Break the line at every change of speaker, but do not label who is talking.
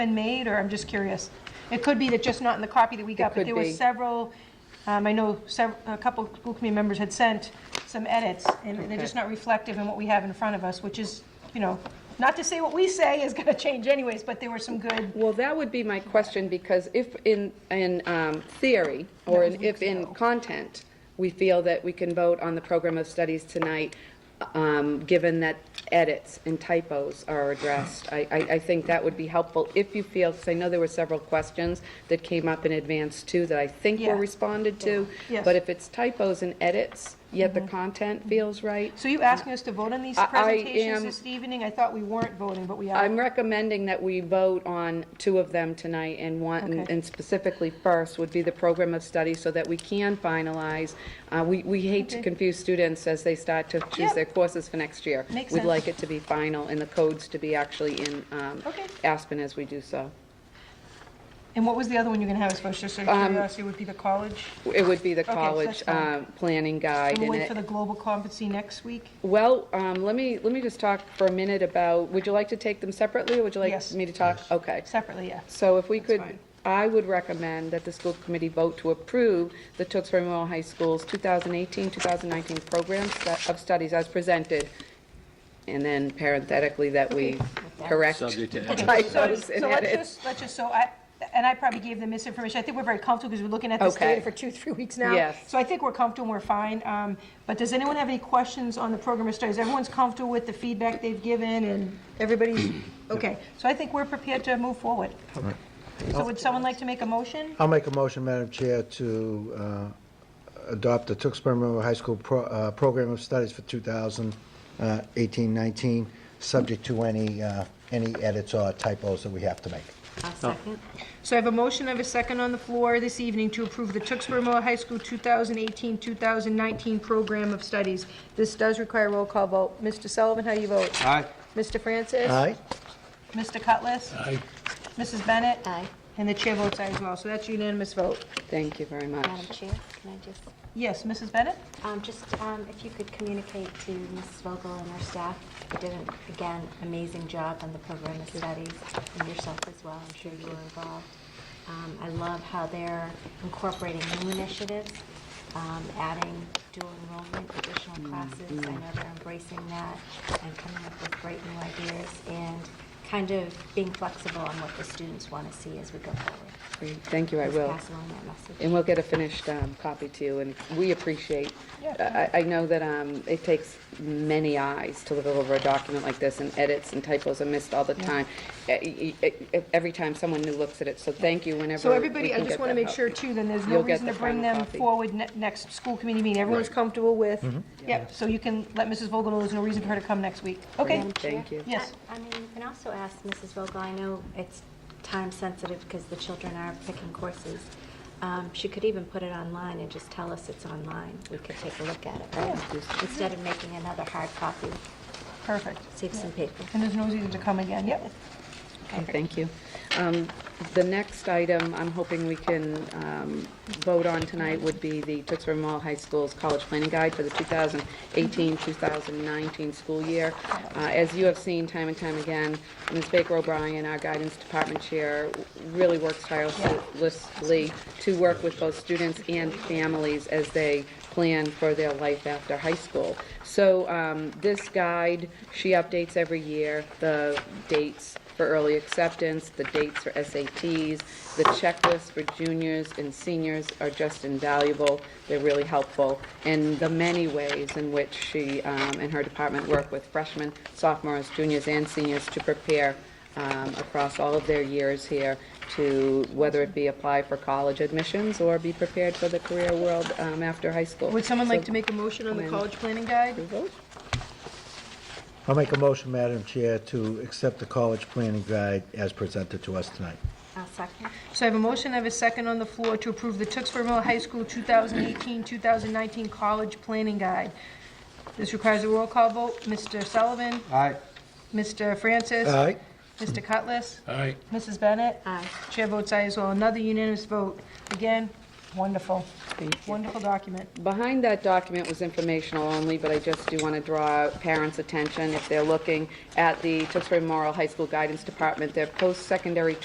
been made, or I'm just curious? It could be that just not in the copy that we got, but
could
there were
be.
several, um, I know sev- a couple of school committee members had sent some edits, and they're just not reflective in what we have in front of us, which is, you know, not to say what we say is going to change anyways, but there were some good,
Well, that would be my question, because if in, in um, theory, or in- if in content, we feel that we can vote on the program of studies tonight, um, given that edits and typos are addressed, I, I I think that would be helpful if you feel, because I know there were several questions that came up in advance too, that I think were
Yeah.
responded to.
Yes. Mm-hmm.
But if it's typos and edits, yet the content feels right,
so you asking us to vote on these
I- I
presentations
am-
this evening? I thought we weren't voting, but we are.
I'm recommending that we vote on two of them tonight, and one,
Okay.
and specifically first would be the program of study, so that we can finalize. Uh, We we hate to
Okay.
confuse students as they start to choose
Yep.
their courses for next year.
Makes sense.
We'd like it to be final, and the codes to be actually in um,
Okay.
Aspen as we do so.
And what was the other one you're going to have us vote, just out
Um,
of curiosity, would be the college?
It would be the
so
college
that's fine.
um, planning guide.
And we'll
and
wait
it-
for the global competency next week?
Well, um, let me, let me just talk for a minute about, would you like to take them separately, or would you like
Yes.
me to talk? Okay.
Separately, yeah.
So if we could,
fine.
I would recommend that the school committee vote to approve the Tewksbury Memorial High School's 2018-2019 program stu- of studies as presented, and then parenthetically that we correct
Subject to
So
typos and
so let's
edits.
just, let's just, so I, and I probably gave them misinformation. I think we're very comfortable because we're looking at this
Okay.
data for two, three weeks now.
Yes.
So I think we're comfortable, we're fine. Um, But does anyone have any questions on the program of studies? Everyone's comfortable with the feedback they've given and everybody's, okay. So I think we're prepared to move forward. So would someone like to make a motion?
I'll make a motion, Madam Chair, to uh, adopt the Tewksbury Memorial High School pro- uh, Program of Studies for 2018-19, subject to any, uh, any edits or typos that we have to make.
So I have a motion, I have a second on the floor this evening to approve the Tewksbury Memorial High School 2018-2019 Program of Studies. This does require a roll call vote. Mr. Sullivan, how do you vote?
Aye.
Mr. Francis?
Aye?
Mr. Cutlass? Aye. Mrs. Bennett? Aye. And the chair votes aye as well, so that's unanimous vote.
Thank you very much.
Madam Chair, can I just,
Yes, Mrs. Bennett?
um, just, um, if you could communicate to Mrs. Vogel and her staff, you did, an again, amazing job on the program of studies, and yourself as well, I'm sure you were involved. Um, I love how they're incorporating new initiatives, um, adding dual enrollment, additional classes, I know they're embracing that, and coming up with great new ideas, and kind of being flexible on what the students want to see as we go forward.
Great. Thank you, I
Just
will.
Pass along that message.
And we'll get a finished um, copy to you, and we appreciate, I I- I know that um, it takes many eyes to look over a document like this, and edits and typos are missed all the time, E- e- e- every time someone new looks at it, so thank you whenever
So
we
everybody, I
can
just
get
want to
that
make
help.
sure too, then there's no
You'll get
reason to
the
bring
final
them
copy.
forward ne- next school committee meeting. Everyone's comfortable with, yep, so you can let Mrs. Vogel know there's no reason for her to come next week. Okay,
Madam Chair?
Thank you.
Yes.
I I mean, you can also ask Mrs. Vogel, I know it's time-sensitive because the children are picking courses. Um, She could even put it online and just tell us it's online. We could take a look at it, right? Instead of making another hard copy,
perfect.
save some paper.
And there's no reason to come again, yep.
Okay, thank you. Um, The next item I'm hoping we can um, vote on tonight would be the Tewksbury Mall High School's College Planning Guide for the 2018-2019 school year. Uh, As you have seen time and time again, Ms. Baker O'Brien, our guidance department chair, really works tirelessly to work with both students and families as they plan for their life after high school. So um, this guide, she updates every year, the dates for early acceptance, the dates for SATs, the checklists for juniors and seniors are just invaluable. They're really helpful, and the many ways in which she um, and her department work with freshmen, sophomores, juniors, and seniors to prepare um, across all of their years here to, whether it be apply for college admissions or be prepared for the career world um, after high school.
Would someone like to make a motion on the
When-
college planning guide?
vote?
I'll make a motion, Madam Chair, to accept the college planning guide as presented to us tonight.
I'll second.
So I have a motion, I have a second on the floor to approve the Tewksbury Memorial High School 2018-2019 College Planning Guide. This requires a roll call vote. Mr. Sullivan?
Aye.
Mr. Francis?
Aye?
Mr. Cutlass?
Aye.
Mrs. Bennett?
Aye.
Chair votes aye as well. Another unanimous vote. Again, wonderful. Wonderful document.
Behind that document was informational only, but I just do want to draw parents' attention if they're looking at the Tewksbury Memorial High School Guidance Department, their post-secondary